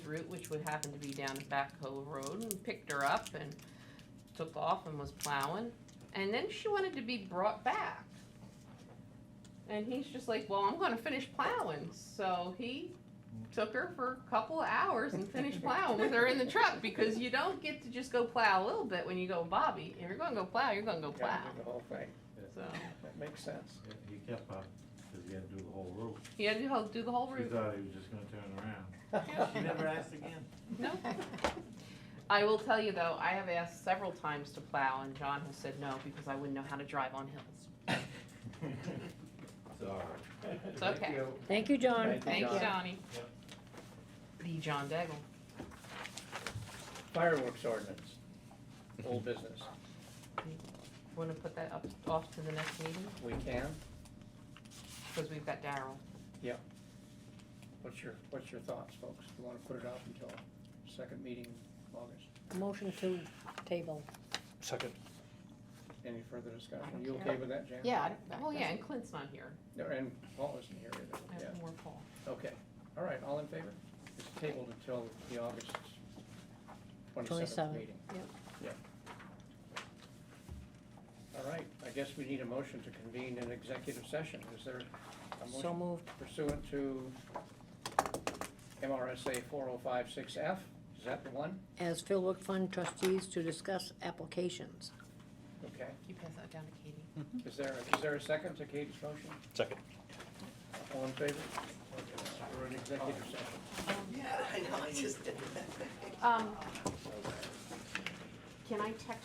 route, which would happen to be down at Back Hill Road, and picked her up and took off and was plowing. And then she wanted to be brought back. And he's just like, well, I'm gonna finish plowing. So he took her for a couple of hours and finished plowing with her in the truck because you don't get to just go plow a little bit when you go Bobby. If you're gonna go plow, you're gonna go Gotta plow. do the whole thing. So That makes sense. He kept up, cause he had to do the whole route. he had to ho- do the whole She route. thought he was just gonna turn around. She never Well, asked again. No. I will tell you though, I have asked several times to plow and John has said no because I wouldn't know how to drive on hills. Sorry. It's okay. Thank you, John. Thank Thank you, John. Donnie. Yep. The John Daggle. Fireworks ordinance, old business. Wanna put that up, off to the next meeting? We can? Cause we've got Daryl. What's your, what's your thoughts, folks? You wanna put it off until second meeting in August? Motion to table. Second. Any further discussion? I don't You okay care. with that, Jan? Oh yeah, and Clint's not here. No, And Paul isn't here I either, have yeah. more Paul. Okay, all right, all in favor? It's tabled until the August twenty-seventh 27th, meeting. yep. All right, I guess we need a motion to convene an executive session. Is there a motion? So moved. pursuant to MRSA 4056F. Is that the one? As Phil Wick Fund trustees to discuss applications. Okay. You pass that down to Katie. Is there, is there a second to Katie's motion? Second. All in favor? We're in executive session. Um, can I text